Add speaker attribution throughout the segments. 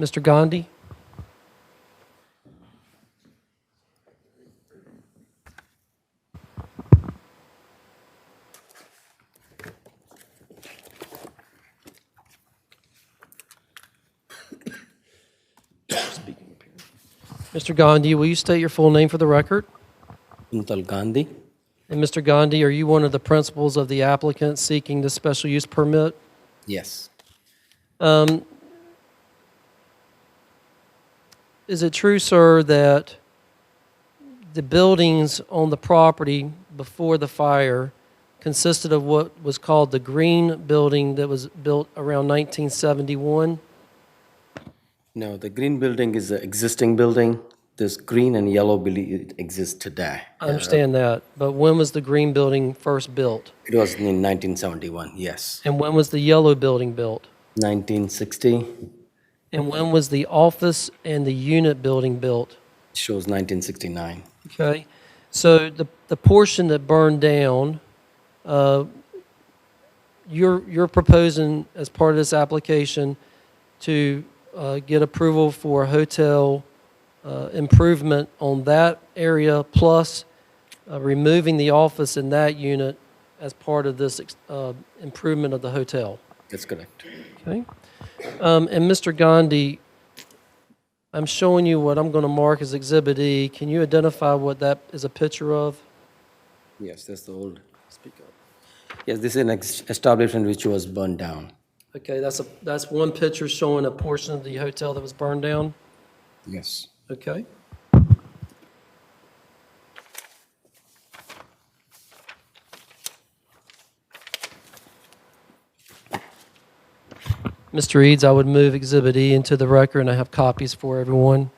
Speaker 1: Mr. Gandhi? Mr. Gandhi, will you state your full name for the record?
Speaker 2: Kuntal Gandhi.
Speaker 1: And Mr. Gandhi, are you one of the principals of the applicant seeking the special use permit?
Speaker 2: Yes.
Speaker 1: Um, Is it true, sir, that the buildings on the property before the fire consisted of what was called the green building that was built around 1971?
Speaker 2: No, the green building is the existing building. This green and yellow building exists today.
Speaker 1: I understand that, but when was the green building first built?
Speaker 2: Uh, It was in 1971, yes.
Speaker 1: And when was the yellow building built?
Speaker 2: 1960
Speaker 1: And when was the office and the unit building built?
Speaker 2: shows 1969.
Speaker 1: Okay, so the, the portion that burned down, uh, you're, you're proposing as part of this application to uh, get approval for a hotel uh, improvement on that area, plus uh, removing the office in that unit as part of this ex- uh, improvement of the hotel.
Speaker 2: That's correct.
Speaker 1: Okay. Um, and Mr. Gandhi, I'm showing you what I'm going to mark as Exhibit E. Can you identify what that is a picture of?
Speaker 2: Yes, that's the old. Speak up. Yes, this is an ex- establishment which was burned down.
Speaker 1: Okay, that's a, that's one picture showing a portion of the hotel that was burned down.
Speaker 2: Yes.
Speaker 1: Okay. Mr. Eads, I would move Exhibit E into the record, and I have copies for everyone.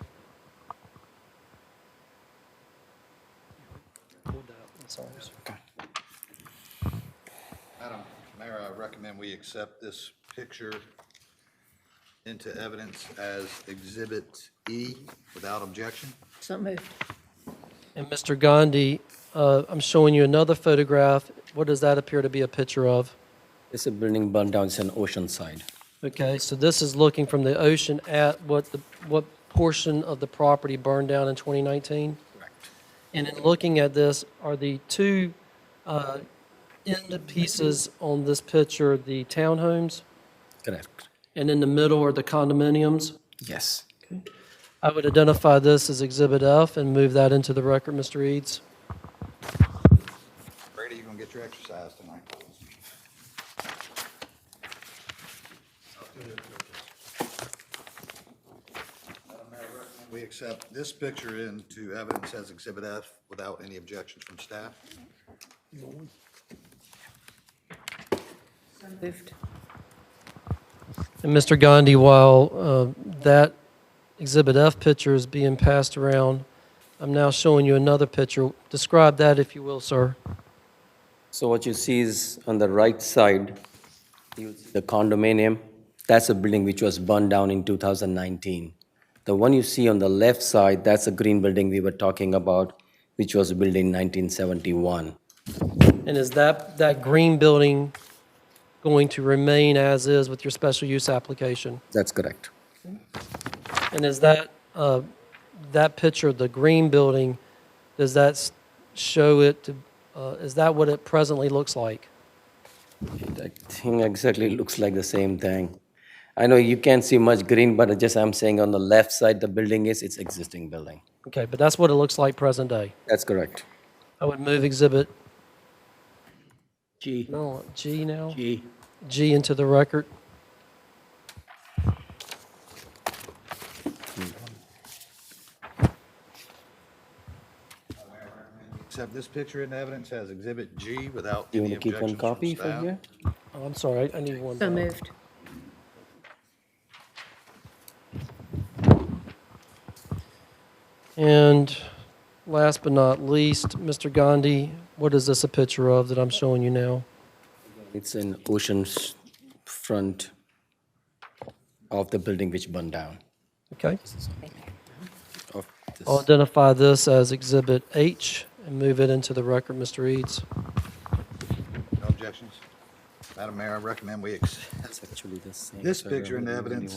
Speaker 3: Madam Mayor, I recommend we accept this picture into evidence as Exhibit E without objection.
Speaker 4: So moved.
Speaker 1: And Mr. Gandhi, uh, I'm showing you another photograph. What does that appear to be a picture of?
Speaker 2: It's a building burned down, it's an ocean side.
Speaker 1: Okay, so this is looking from the ocean at what the, what portion of the property burned down in 2019?
Speaker 3: Correct.
Speaker 1: And in looking at this, are the two uh, end pieces on this picture the townhomes?
Speaker 2: Correct.
Speaker 1: And in the middle are the condominiums?
Speaker 2: Yes.
Speaker 1: I would identify this as Exhibit F and move that into the record, Mr. Eads.
Speaker 3: Brady, you gonna get your exercise tonight. Madam Mayor, I recommend We accept this picture into evidence as Exhibit F without any objections from staff.
Speaker 4: So moved.
Speaker 1: And Mr. Gandhi, while uh, that Exhibit F picture is being passed around, I'm now showing you another picture. Describe that, if you will, sir.
Speaker 2: So what you see is on the right side, you see the condominium, that's a building which was burned down in 2019. The one you see on the left side, that's a green building we were talking about, which was built in 1971.
Speaker 1: And is that, that green building going to remain as is with your special use application?
Speaker 2: That's correct.
Speaker 1: And is that, uh, that picture, the green building, does that s- show it, to- uh, is that what it presently looks like?
Speaker 2: I think exactly looks like the same thing. I know you can't see much green, but I just, I'm saying on the left side, the building is, it's existing building.
Speaker 1: Okay, but that's what it looks like present day.
Speaker 2: That's correct.
Speaker 1: I would move exhibit,
Speaker 2: G.
Speaker 1: no, G now?
Speaker 2: G.
Speaker 1: G into the record.
Speaker 3: Accept this picture into evidence as Exhibit G without
Speaker 2: You want
Speaker 3: any
Speaker 2: to keep one
Speaker 3: objections from
Speaker 2: copy for
Speaker 3: staff.
Speaker 2: here?
Speaker 1: Oh, I'm sorry, I need one.
Speaker 4: So
Speaker 1: back.
Speaker 4: moved.
Speaker 1: And last but not least, Mr. Gandhi, what is this a picture of that I'm showing you now?
Speaker 2: It's an ocean's front of the building which burned down.
Speaker 1: Okay,
Speaker 2: of this-
Speaker 1: I'll identify this as Exhibit H and move it into the record, Mr. Eads.
Speaker 3: No objections? Madam Mayor, I recommend we accept
Speaker 2: It's actually the same.
Speaker 3: this
Speaker 2: so I don't
Speaker 3: picture into
Speaker 2: know
Speaker 3: evidence